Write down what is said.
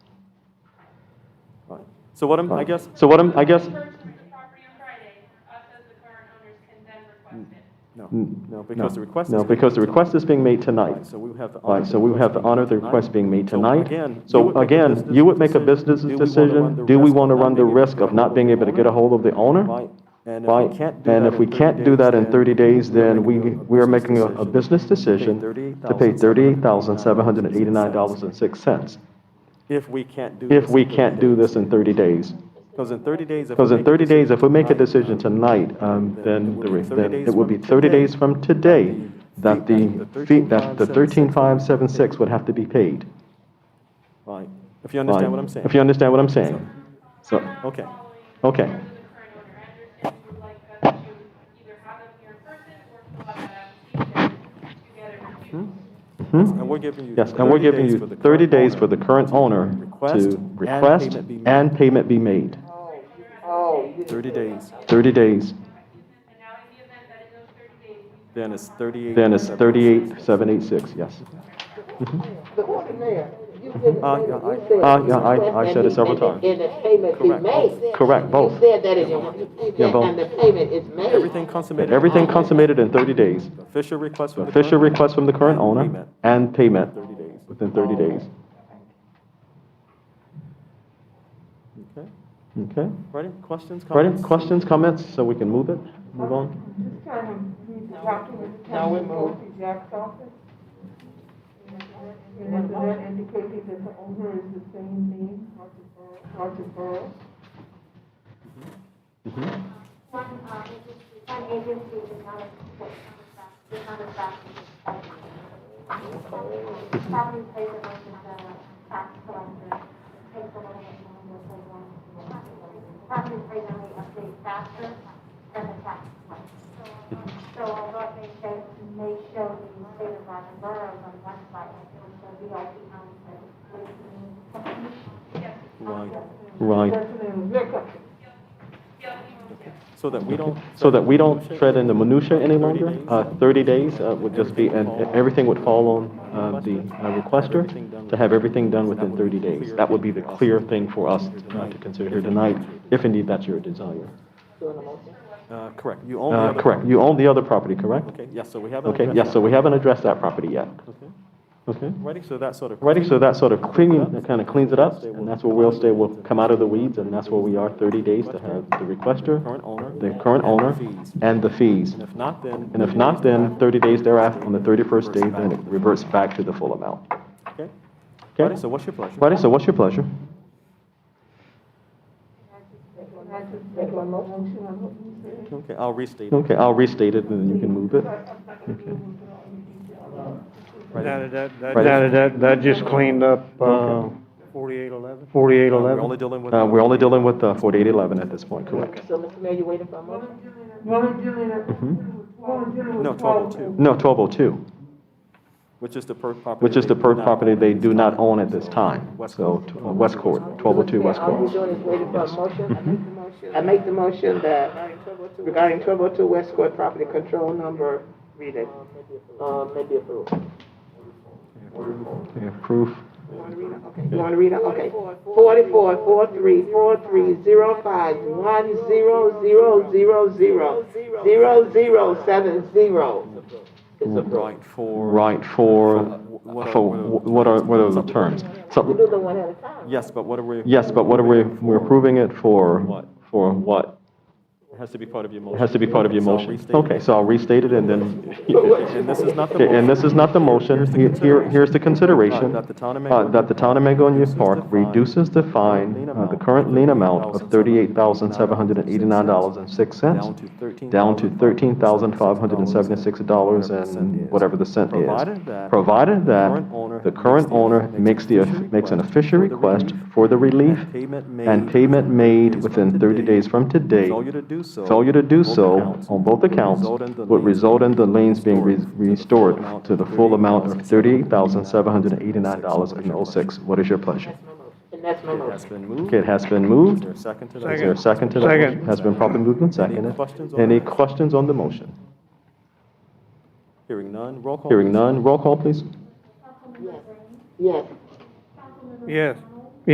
Fine. So what I'm, I Fine. guess, So what I'm, I guess, Purchased the property on Friday, us as the current owners can then request it. no, Mm. no, because the request is. no, because the request is being made Right, tonight. so we have to honor. Right, so we have to honor the request being made So tonight. again, you So would make a again, business you would make a decision. business Do we wanna run decision, the do we risk of want to not run the being able to risk get of a hold not of being the able to owner? get a hold of the owner? Right, and if Right, we can't do that. and if we can't do that in 30 days, then we, we are making a a business decision to pay $38,789.06 If we can't do. if this we in 30 can't do days. this in 30 days. Because in 30 days. if we Because in make a 30 days, if we make a decision decision tonight, tonight, um, then it then would the be re- 30 then days it would be from 30 today days from today that that the the, fee- fee- that the 13,576 13,576 would have to be paid. Right, if you understand what I'm saying. If you understand what I'm saying. So, Okay. Okay. Following the current owner, I understand you would like us to either have them here in person or fill out that application to get it reviewed. hmm? And we're giving you. yes, and we're giving you 30 days for the current owner Request to and request payment be made. and payment be made. Oh, you 30 days, 30 days, And now in the event that in those thirty days, we then it's 38. then it's 38,786, yes. Ah, but what the mayor, you didn't Uh, yeah, I- say that. You said Uh, yeah, I- request I and said it the several payment- times. And the payment be Correct, both. made. Correct, both. You said that in your, you said Yeah, that, both. and the payment is made. Everything consummated. Everything consummated in 30 days. Official request from the. Official current owner, request from the current and owner payment and payment 30 days. within 30 days. Okay, Okay? ready, questions, Ready? comments? Questions, comments, so we can move it, move on? This time, he's talking with the county Dorothy Jack's office. And so that indicated that the owner is the same name, Roger Burrow, Roger Burrow. One, um, agency, one agency is not a, is not a factor. Property plays a much of a tax collector, takes a little bit longer for one. Property plays only update faster than the tax collector. So although it may show, may show the state of Rotten Borough on one side, it will show the IP on the other. Right, Right, That's the name of liquor. so that we don't. so that we don't tread in the minutia any longer, uh, 30 days uh, would just be, and everything would fall on uh, the uh, requester to have everything done within 30 days. That would be the clear thing for us uh, to consider here tonight, if indeed that's your desire. Uh, correct, you own the Uh, other- Correct, you own the other property, correct? Okay, yes, so we haven't. Okay, addressed yes, so that. we haven't addressed that property yet, Okay, okay? ready, so that sort of. Ready, so that sort of cleaning, that kind of cleans it up, and that's where we'll stay, we'll come out of the weeds, and that's where we are, 30 days to have the requester, Current owner. the current and the owner, Fees. and the fees. And if not, then. And if not, then 30 days thereafter, on the 31st day, then it reverts back to the full amount. Okay. Ready, Okay? so what's your pleasure? Friday, so what's your pleasure? And I just make a motion on what you said. Okay, I'll restate. it. Okay, I'll restate it, and then you can move it. I'm not gonna be able to put all the details on. That, that, that, Right. that, that- that just cleaned up, uh, Forty-eight eleven? forty-eight We're eleven. only dealing with. Uh, We're only dealing with uh, 4811 at this point, correct? So, Mr. Mayor, you waiting for a moment? We're only dealing with, we're only dealing with No, twelve. 1202. No, 1202, Which is the per property. which is they the do per not property own. they do not own at this time. So, t- uh, West Court, 1202 West All you're Court. doing is waiting for a motion? I make the motion that regarding 1202 West Court property control number, read it. Uh, maybe approved. Okay, Approve. You want to read it? Okay. 44, 43, 43, 05, 10, 0, 0, 0, 0, 7, 0. It's approved. Right, for. Right, for, What are- for, what are- what are, what are the terms? We So, do the one at a time. Yes, but what are we? yes, but what are we, we're approving it for? What? For what? It Has to be part of your motion. It has to be part of your So I'll motion. restate it. Okay, so I'll restate it and then, And this is not the. okay, and this is not the motion. Here's the Here- Here, consideration. here's the consideration. Uh, that the town of uh, Mango- That the town of Mango and Youth reduces Park the fine- reduces the lien fine, uh, amount the of current lien amount of Down $38,789.06 to thirteen. down to $13,576 and whatever the cent is. Provided that Provided current owner that the current owner makes makes the the, official makes an request official for the relief request for the relief and payment made and payment made within 30 days from today. Failure to do so. Failure to do both so accounts on both would accounts result in the would liens result in the liens being re- restored to the full restored to the full amount of $38,789.06. What is your pleasure? And that's my It motion. has been moved. Okay, it has been Is moved. there a second to that? Is there a second to that? Second. motion? Has been properly moved and Any seconded. questions on Any that? questions on the motion? Hearing none, roll call. Hearing please. none, roll call, please. Yes. Yes.